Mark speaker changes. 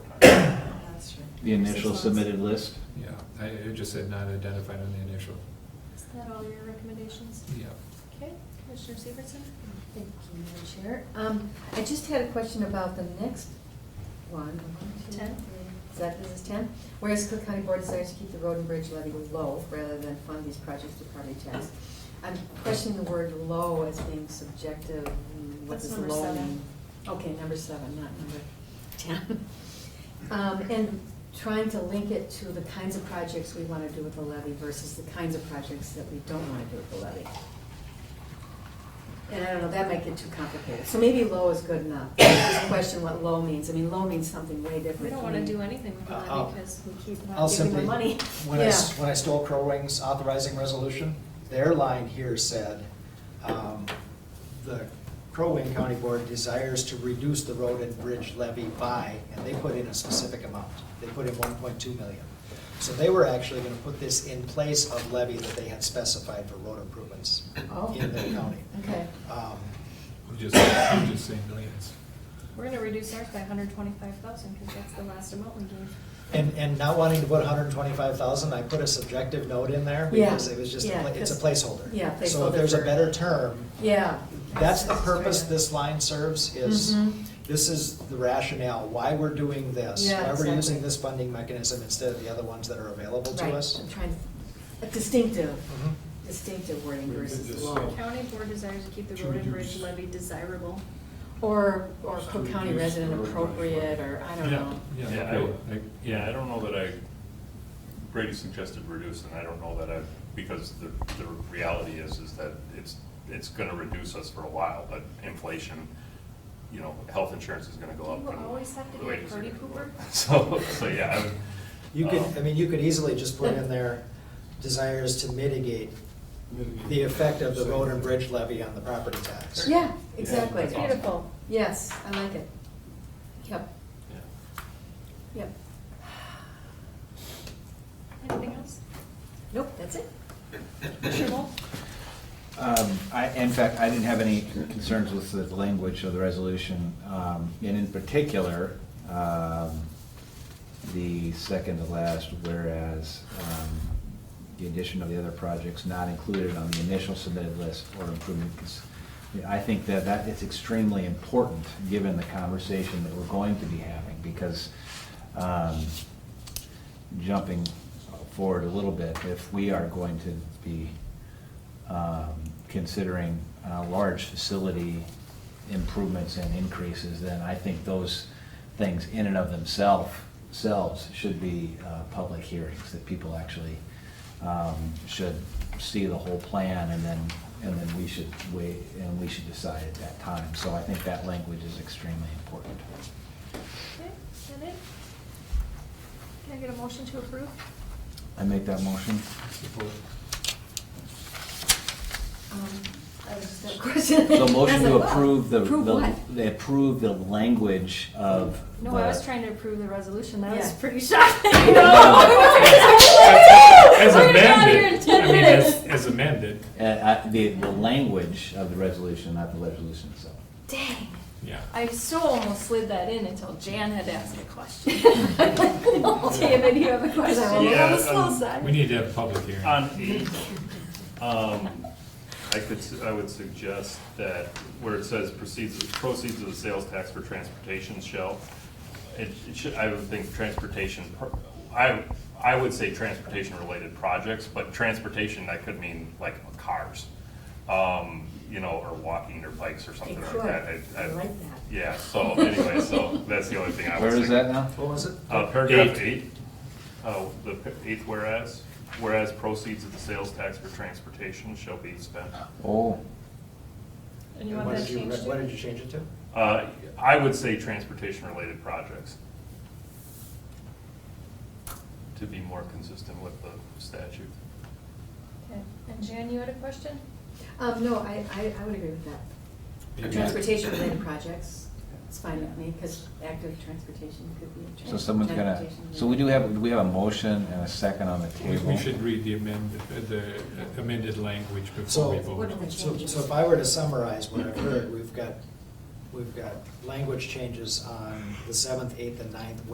Speaker 1: The initial
Speaker 2: Response.
Speaker 1: submitted list?
Speaker 3: Yeah, I, it just said not identified on the initial,
Speaker 2: Is that all your recommendations?
Speaker 3: yeah.
Speaker 2: Okay, Commissioner Severson?
Speaker 4: Thank you, Madam Chair. Um, I just had a question about the next one. One, two,
Speaker 2: Ten.
Speaker 4: three. Is that, this is ten? Whereas Cook County Board desires to keep the road and bridge levy low rather than fund these projects through property tax. I'm questioning the word low as being subjective. and What
Speaker 2: That's
Speaker 4: does
Speaker 2: number
Speaker 4: low
Speaker 2: seven.
Speaker 4: mean? Okay, number seven, not number ten. Um, and trying to link it to the kinds of projects we want to do with the levy versus the kinds of projects that we don't want to do with the levy. And I don't know, that might get too complicated. So maybe low is good enough. Just question what low means. I mean, low means something way different.
Speaker 2: We don't want to do anything with
Speaker 5: I'll-
Speaker 2: that because we keep
Speaker 5: Uh, I'll
Speaker 2: not giving
Speaker 5: simply,
Speaker 2: them money.
Speaker 5: when I, s- when I stole Crow Wing's authorizing resolution, their line here said, um, the Crow Wing County Board desires to reduce the road and bridge levy by, and they put in a specific amount. They put in one point two million. So they were actually gonna put this in place of levy that they had specified for road improvements
Speaker 4: Oh.
Speaker 5: in their county.
Speaker 4: Okay.
Speaker 5: Um,
Speaker 3: We just, we just say millions.
Speaker 2: We're gonna reduce ours by hundred twenty-five thousand because that's the last amount we gave.
Speaker 5: And, and not wanting to put hundred and twenty-five thousand, I put a subjective note in there
Speaker 4: Yeah,
Speaker 5: because it was just, a
Speaker 4: yeah,
Speaker 5: pla- it's a
Speaker 4: 'cause-
Speaker 5: placeholder.
Speaker 4: yeah,
Speaker 5: So
Speaker 4: placeholder
Speaker 5: if there's a
Speaker 4: for-
Speaker 5: better term,
Speaker 4: Yeah.
Speaker 5: That's the
Speaker 4: Just trying
Speaker 5: purpose
Speaker 4: to-
Speaker 5: this line serves, is,
Speaker 4: Mhm.
Speaker 5: this is the rationale, why we're doing this.
Speaker 4: Yeah,
Speaker 5: Why we're
Speaker 4: exactly.
Speaker 5: using this funding mechanism instead of the other ones that are available to
Speaker 4: Right,
Speaker 5: us.
Speaker 4: I'm trying, a distinctive,
Speaker 5: Mhm.
Speaker 4: distinctive wording
Speaker 6: We could
Speaker 4: versus
Speaker 6: just
Speaker 4: low.
Speaker 6: say-
Speaker 2: County board desires to keep the
Speaker 6: To
Speaker 2: road and bridge
Speaker 6: reduce-
Speaker 2: levy desirable.
Speaker 4: Or, or Cook
Speaker 6: To
Speaker 4: County
Speaker 6: reduce
Speaker 4: resident
Speaker 6: the road
Speaker 4: appropriate, or I don't know.
Speaker 3: Yeah,
Speaker 7: Yeah, I,
Speaker 3: okay.
Speaker 7: would- yeah, I don't know that I, Brady suggested reduce, and I don't know that I, because the, the reality is, is that it's, it's gonna reduce us for a while, but inflation, you know, health insurance is gonna go up.
Speaker 2: You
Speaker 7: and
Speaker 2: always have to
Speaker 7: the
Speaker 2: be a
Speaker 7: wages are
Speaker 2: party
Speaker 7: gonna go up.
Speaker 2: pooper?
Speaker 7: So, so, yeah, I would.
Speaker 5: You could,
Speaker 7: um,
Speaker 5: I mean, you could easily just put in there desires to mitigate the effect of the road and bridge levy on the property tax.
Speaker 4: Yeah, exactly.
Speaker 7: that's awesome. Beautiful.
Speaker 4: Yes, I like it. Yep,
Speaker 7: yeah.
Speaker 4: yep.
Speaker 2: Anything else?
Speaker 4: Nope, that's it.
Speaker 2: Commissioner Wolf?
Speaker 1: Um, I, in fact, I didn't have any concerns with the language of the resolution, um, and in particular, um, the second to last, whereas, um, the addition of the other projects not included on the initial submitted list or improvement. cons- I think that that is extremely important, given the conversation that we're going to be having, because, um, jumping forward a little bit, if we are going to be um, considering uh, large facility improvements and increases, then I think those things in and of themselves, selves should be uh, public hearings, that people actually um, should see the whole plan and then, and then we should wait, and we should decide at that time. So I think that language is extremely important.
Speaker 2: Okay, that it? Can I get a motion to approve?
Speaker 1: I make that motion?
Speaker 3: Support.
Speaker 4: Um, I was just a question.
Speaker 1: So
Speaker 4: That's
Speaker 1: motion to
Speaker 4: like, wow.
Speaker 1: approve the,
Speaker 4: Approve what?
Speaker 1: the, approve the language of.
Speaker 2: No, I
Speaker 1: the-
Speaker 2: was trying to approve the resolution. That was
Speaker 4: Yeah.
Speaker 2: pretty shocking.
Speaker 3: As
Speaker 2: We're gonna be out here in
Speaker 3: amended, I
Speaker 2: 10
Speaker 3: mean,
Speaker 2: minutes.
Speaker 3: as, as amended,
Speaker 1: Uh, uh, The, the language of the resolution, not the resolution itself.
Speaker 2: Dang.
Speaker 3: yeah.
Speaker 2: I so almost slid that in until Jan had asked a question. David, you have a question?
Speaker 4: Yeah,
Speaker 2: We're on the
Speaker 7: um,
Speaker 2: slow side.
Speaker 3: We need to have a public hearing.
Speaker 2: Uh,
Speaker 7: On eight, um, I could, s- I would suggest that where it says proceeds, proceeds of the sales tax for transportation shall, it it should, I would think transportation, pro- I, I would say transportation-related projects, but transportation, that could mean like cars, um, you know, or walking or bikes or something like
Speaker 4: could.
Speaker 7: that.
Speaker 4: I like that.
Speaker 7: Yeah, so anyway, so that's the only thing I was
Speaker 1: Where
Speaker 7: thinking.
Speaker 1: is that now?
Speaker 5: What was it?
Speaker 7: Uh, Paragraph
Speaker 3: Eight.
Speaker 7: eight, uh, the p- eighth whereas, whereas proceeds of the sales tax for transportation shall be spent.
Speaker 1: Oh,
Speaker 2: And you want
Speaker 5: And what
Speaker 2: that
Speaker 5: did you
Speaker 2: changed?
Speaker 5: re- What
Speaker 2: to-
Speaker 5: did you change it to?
Speaker 7: Uh, I would say transportation-related projects to be more consistent with the statute.
Speaker 2: Okay. And Jan, you had a question?
Speaker 4: Um, no, I, I, I would agree with that.
Speaker 3: Yeah.
Speaker 4: Transportation related projects, it's fine with me, because active transportation could be.
Speaker 1: so someone's gonna,
Speaker 4: transportation
Speaker 1: so we do have, we have a motion and a second on the
Speaker 3: We-
Speaker 1: table.
Speaker 3: We should read the amended, the amended language before we
Speaker 5: So-
Speaker 3: vote.
Speaker 4: What are the
Speaker 5: So,
Speaker 4: changes?
Speaker 5: so if I were to summarize what I've heard, we've got, we've got language changes on the seventh, eighth, and ninth